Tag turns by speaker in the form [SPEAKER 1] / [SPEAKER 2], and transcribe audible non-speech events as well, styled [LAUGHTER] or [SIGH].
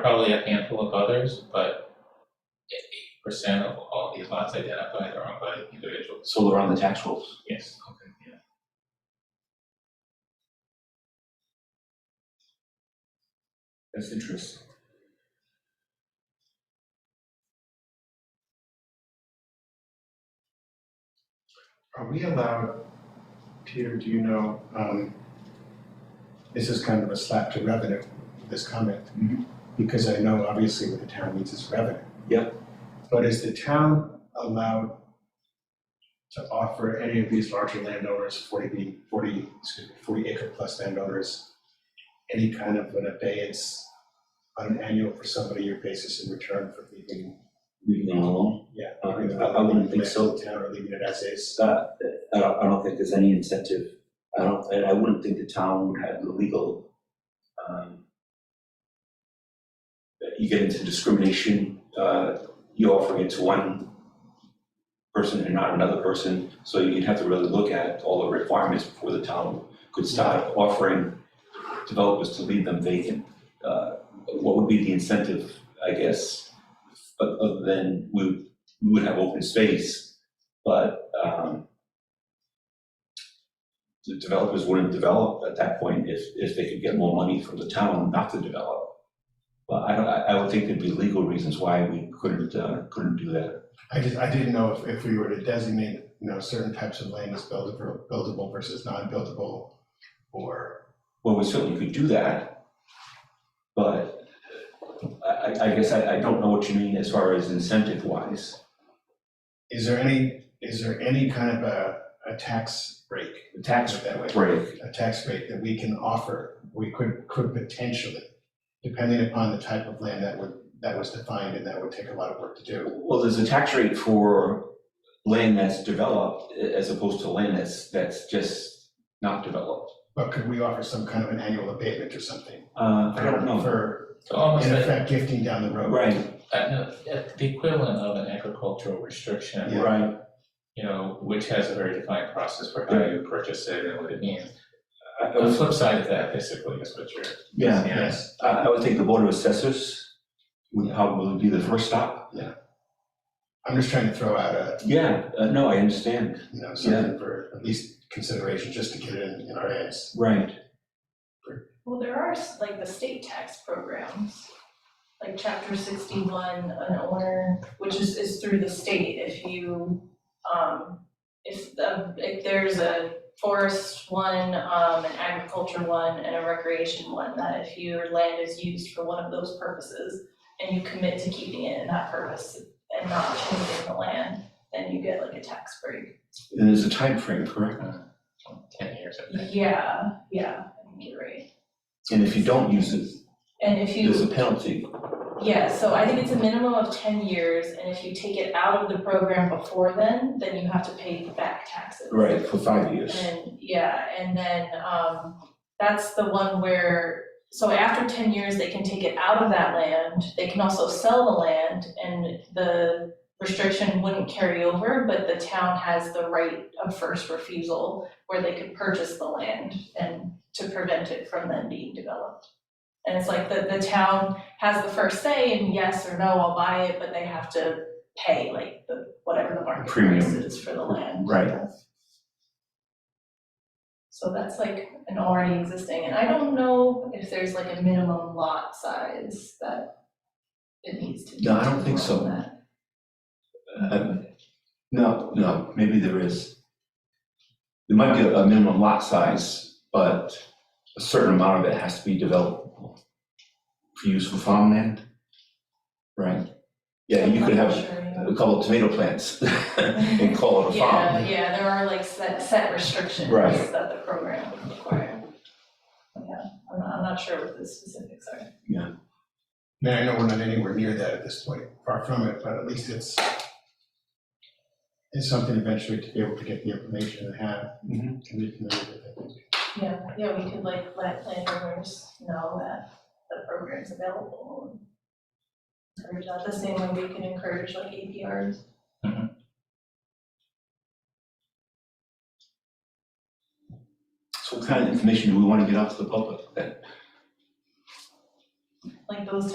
[SPEAKER 1] probably a handful of others, but eighty percent of all these lots identified are owned by individuals,
[SPEAKER 2] So they're on the tax rolls.
[SPEAKER 1] yes.
[SPEAKER 2] That's interesting.
[SPEAKER 3] Are we allowed, Peter, do you know, um, this is kind of a slap to revenue, this comment.
[SPEAKER 4] Mm-hmm.
[SPEAKER 2] Mhm.
[SPEAKER 3] Because I know obviously what the town needs is revenue.
[SPEAKER 2] Yep.
[SPEAKER 3] But is the town allowed to offer any of these larger landowners, forty B, forty, excuse me, forty acre plus landowners, any kind of an abeyance on an annual per somebody year basis in return for leaving,
[SPEAKER 4] leaving them alone.
[SPEAKER 3] yeah,
[SPEAKER 4] Uh,
[SPEAKER 3] leaving
[SPEAKER 4] I- I wouldn't think so.
[SPEAKER 3] the town or leaving it as is?
[SPEAKER 4] It's not, I don't, I don't think there's any incentive. I don't, and I wouldn't think the town would have the legal, um, that you get into discrimination, uh, you offering it to one person and not another person. So you'd have to really look at all the requirements before the town could start offering developers to leave them vacant. Uh, what would be the incentive, I guess? But other than we, we would have open space, but, um, the developers wouldn't develop at that point if, if they could get more money from the town not to develop. But I don't, I, I would think there'd be legal reasons why we couldn't, uh, couldn't do that.
[SPEAKER 3] I just, I didn't know if, if we were to designate, you know, certain types of land as buildable, buildable versus non-buildable, or,
[SPEAKER 4] Well, we certainly could do that, but I, I, I guess I, I don't know what you mean as far as incentive wise.
[SPEAKER 3] is there any, is there any kind of a, a tax break,
[SPEAKER 4] The
[SPEAKER 3] put
[SPEAKER 4] tax
[SPEAKER 3] it that way?
[SPEAKER 4] break,
[SPEAKER 3] A tax rate that we can offer, we could, could potentially, depending upon the type of land that would, that was defined, and that would take a lot of work to do.
[SPEAKER 4] Well, there's a tax rate for land that's developed a- as opposed to land that's, that's just not developed.
[SPEAKER 3] But could we offer some kind of an annual abatement or something?
[SPEAKER 4] Uh, I don't know.
[SPEAKER 3] For,
[SPEAKER 1] So almost
[SPEAKER 3] in
[SPEAKER 1] like,
[SPEAKER 3] effect, gifting down the road.
[SPEAKER 4] Right,
[SPEAKER 1] I know, yeah, the equivalent of an agricultural restriction,
[SPEAKER 3] Yeah.
[SPEAKER 4] right.
[SPEAKER 1] you know, which has a very defined process for how you purchase it and what it means.
[SPEAKER 4] I- I
[SPEAKER 1] The
[SPEAKER 4] was-
[SPEAKER 1] flip side of that basically is what you're.
[SPEAKER 4] Yeah,
[SPEAKER 3] Yes.
[SPEAKER 4] I, I would think the board of assessors would probably be the first stop.
[SPEAKER 3] I'm just trying to throw out a,
[SPEAKER 4] Yeah, uh, no, I understand.
[SPEAKER 3] you know, something for at least consideration, just to get it in, in our heads.
[SPEAKER 4] Right.
[SPEAKER 5] Well, there are s- like the state tax programs, like chapter sixty-one, an owner, which is, is through the state, if you, um, if the, if there's a forest one, um, an agriculture one, and a recreation one, that if your land is used for one of those purposes, and you commit to keeping it in that purpose and not changing the land, then you get like a tax break.
[SPEAKER 4] And there's a time frame, correct?
[SPEAKER 1] Ten years, I think.
[SPEAKER 5] Yeah, yeah, I think you're right.
[SPEAKER 4] And if you don't use it,
[SPEAKER 5] And if you.
[SPEAKER 4] there's a penalty.
[SPEAKER 5] Yeah, so I think it's a minimum of ten years, and if you take it out of the program before then, then you have to pay the back taxes.
[SPEAKER 4] For five years.
[SPEAKER 5] And, yeah, and then, um, that's the one where, so after ten years, they can take it out of that land, they can also sell the land, and the restriction wouldn't carry over, but the town has the right of first refusal, where they could purchase the land and to prevent it from then being developed. And it's like the, the town has the first say, and yes or no, I'll buy it, but they have to pay, like, the, whatever the market
[SPEAKER 4] Premium.
[SPEAKER 5] price is for the land.
[SPEAKER 4] Right.
[SPEAKER 5] So that's like an already existing, and I don't know if there's like a minimum lot size that it needs to be.
[SPEAKER 4] No, I don't think so.
[SPEAKER 5] on that.
[SPEAKER 4] Um, No, no, maybe there is. There might be a minimum lot size, but a certain amount of it has to be developable for use for farmland, right? Yeah, you could have
[SPEAKER 5] I'm not sure, you know.
[SPEAKER 4] a couple of tomato plants [LAUGHS]
[SPEAKER 5] [LAUGHS]
[SPEAKER 4] and call it a
[SPEAKER 5] Yeah,
[SPEAKER 4] farm.
[SPEAKER 5] yeah, there are like set, set restrictions
[SPEAKER 4] Right.
[SPEAKER 5] that the program would require. Yeah, I'm not, I'm not sure what the specifics are.
[SPEAKER 3] Now, I know we're not anywhere near that at this point, far from it, but at least it's it's something eventually to be able to get the information and have,
[SPEAKER 4] Mhm.
[SPEAKER 3] can be familiar with it. I think.
[SPEAKER 5] Yeah, yeah, we could like let landowners know that the program's available. and Encourage that, the same way we can encourage like APRs.
[SPEAKER 4] So what kind of information do we want to get out to the public then?
[SPEAKER 5] like those type